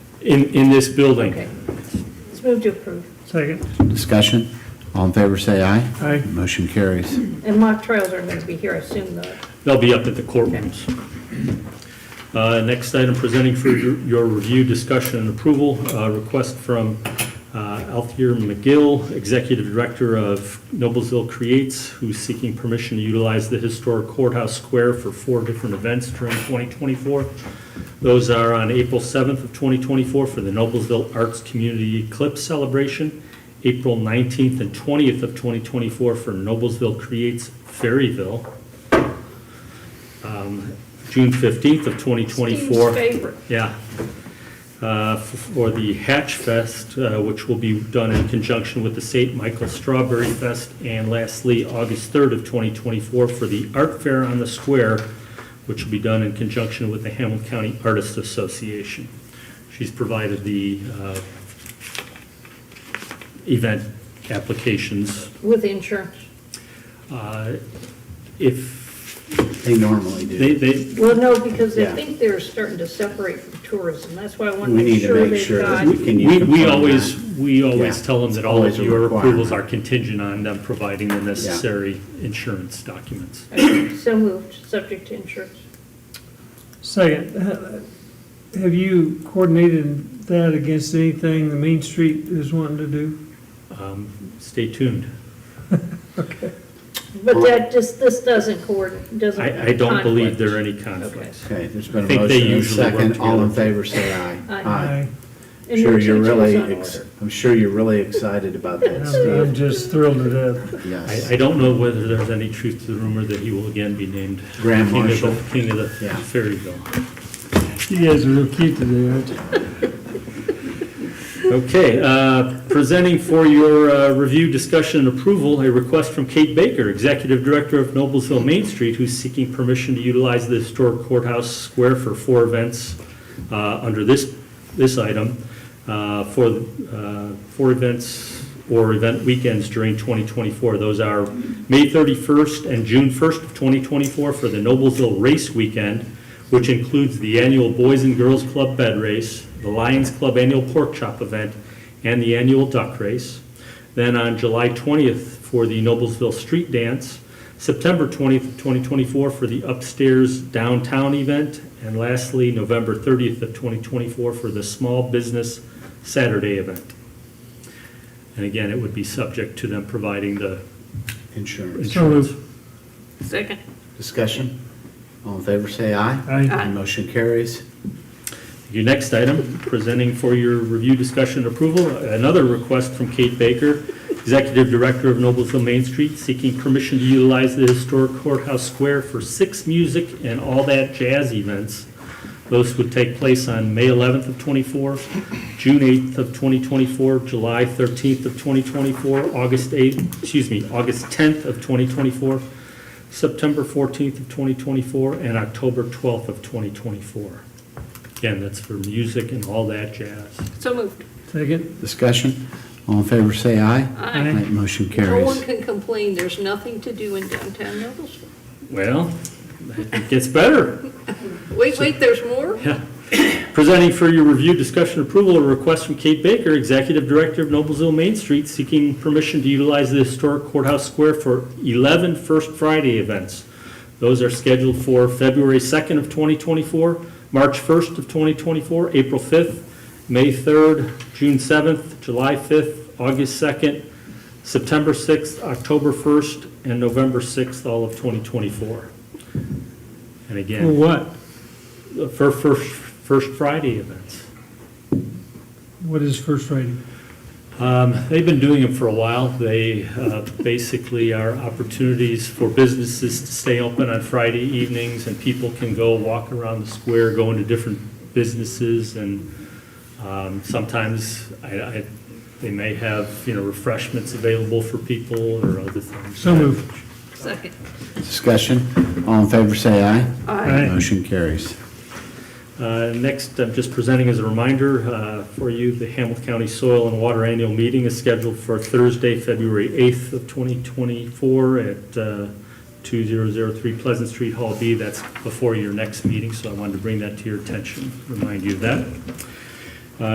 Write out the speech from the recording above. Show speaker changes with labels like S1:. S1: in, in this building.
S2: Okay. Let's move to approve.
S3: Second.
S4: Discussion? All in favor, say aye.
S3: Aye.
S4: Motion carries.
S2: And mock trials aren't going to be here, I assume, though.
S1: They'll be up at the courtrooms. Uh, Next item presenting for your your review, discussion, and approval, uh, request from uh, Althea McGill, Executive Director of Noblesville Creates, who's seeking permission to utilize the historic courthouse square for four different events during 2024. Those are on April 7th of 2024 for the Noblesville Arts Community Eclipse Celebration, April 19th and 20th of 2024 for Noblesville Creates Ferryville, um, June 15th of 2024.
S2: Steve's favorite.
S1: Yeah. Uh, f- For the Hatch Fest, uh, which will be done in conjunction with the St. Michael Strawberry Fest. And lastly, August 3rd of 2024 for the Art Fair on the Square, which will be done in conjunction with the Hamilton County Artists Association. She's provided the uh, event applications.
S2: With insurance.
S1: Uh, If
S4: They normally
S1: they,
S4: do.
S1: they,
S2: Well, no, because I
S4: Yeah.
S2: think they're starting to separate from tourism. That's why I want
S4: We
S2: to
S4: need
S2: make
S4: to
S2: sure
S4: make
S2: they've
S4: sure
S2: got.
S4: that we Can you
S1: We, we
S4: confirm
S1: always, we always
S4: Yeah.
S1: tell them that all
S4: Always
S1: of
S4: a
S1: your approvals
S4: requirement.
S1: are contingent on them providing the necessary insurance documents.
S2: Okay, So moved, subject to insurance.
S3: Second. Uh, Have you coordinated that against anything the Main Street is wanting to do?
S1: Um, Stay tuned.
S2: But that just, this doesn't coordinate, doesn't.
S1: I, I don't believe there are
S2: conflict.
S1: any conflicts.
S4: Okay, there's been
S1: I
S4: a
S1: think they
S4: motion and a
S1: usually work
S4: second. All in
S1: together.
S4: favor, say aye.
S2: Aye. And
S4: I'm
S2: your
S4: sure you're
S2: teacher was
S4: really,
S2: on
S4: ex-
S2: order.
S4: I'm sure you're really excited about that,
S3: I'm I'm
S4: Steve.
S3: just thrilled to death.
S1: I,
S4: Yes.
S1: I don't know whether there's any truth to the rumor that he will again be named
S4: Grand
S1: King of
S4: Marshal.
S1: the, King of the
S4: Yeah.
S1: Ferryville.
S3: You guys are real cute today, aren't you?
S1: Okay, uh, presenting for your uh, review, discussion, and approval, a request from Kate Baker, Executive Director of Noblesville Main Street, who's seeking permission to utilize the historic courthouse square for four events uh, under this, this item, uh, for, uh, four events or event weekends during 2024. Those are May 31st and June 1st of 2024 for the Noblesville Race Weekend, which includes the annual Boys and Girls Club Bed Race, the Lions Club Annual Pork Chop Event, and the annual Duck Race. Then on July 20th for the Noblesville Street Dance, September 20th, of 2024 for the Upstairs Downtown Event, and lastly, November 30th of 2024 for the Small Business Saturday Event. And again, it would be subject to them providing the
S4: Insurance.
S3: So
S1: insurance.
S3: moved.
S2: Second.
S4: Discussion? All in favor, say aye.
S3: Aye.
S2: Aye.
S4: Motion carries.
S1: Your next item, presenting for your review, discussion, and approval, another request from Kate Baker, Executive Director of Noblesville Main Street, seeking permission to utilize the historic courthouse square for six music and all that jazz events. Those would take place on May 11th of '24, June 8th of 2024, July 13th of 2024, August 8th, excuse me, August 10th of 2024, September 14th of 2024, and October 12th of 2024. Again, that's for music and all that jazz.
S2: So moved.
S3: Second.
S4: Discussion? All in favor, say aye.
S3: Aye.
S4: Aye, Motion
S2: No one
S4: carries.
S2: can complain, there's nothing to do in downtown Noblesville.
S1: Well, it gets better.
S2: Wait, wait, there's more?
S1: Yeah. Presenting for your review, discussion, approval, a request from Kate Baker, Executive Director of Noblesville Main Street, seeking permission to utilize the historic courthouse square for 11 First Friday events. Those are scheduled for February 2nd of 2024, March 1st of 2024, April 5th, May 3rd, June 7th, July 5th, August 2nd, September 6th, October 1st, and November 6th, all of 2024. And again.
S3: For what?
S1: For First, First Friday events.
S3: What is First Friday?
S1: Um, They've been doing them for a while. They uh, basically are opportunities for businesses to stay open on Friday evenings, and people can go walk around the square, go into different businesses, and um, sometimes I- I- they may have, you know, refreshments available for people or other things.
S3: So moved.
S2: Second.
S4: Discussion? All in favor, say aye.
S3: Aye.
S4: Motion carries.
S1: Uh, Next, I'm just presenting as a reminder uh, for you, the Hamilton County Soil and Water Annual Meeting is scheduled for Thursday, February 8th of 2024 at uh, 2003 Pleasant Street, Hall B. That's before your next meeting, so I wanted to bring that to your attention, remind you of that.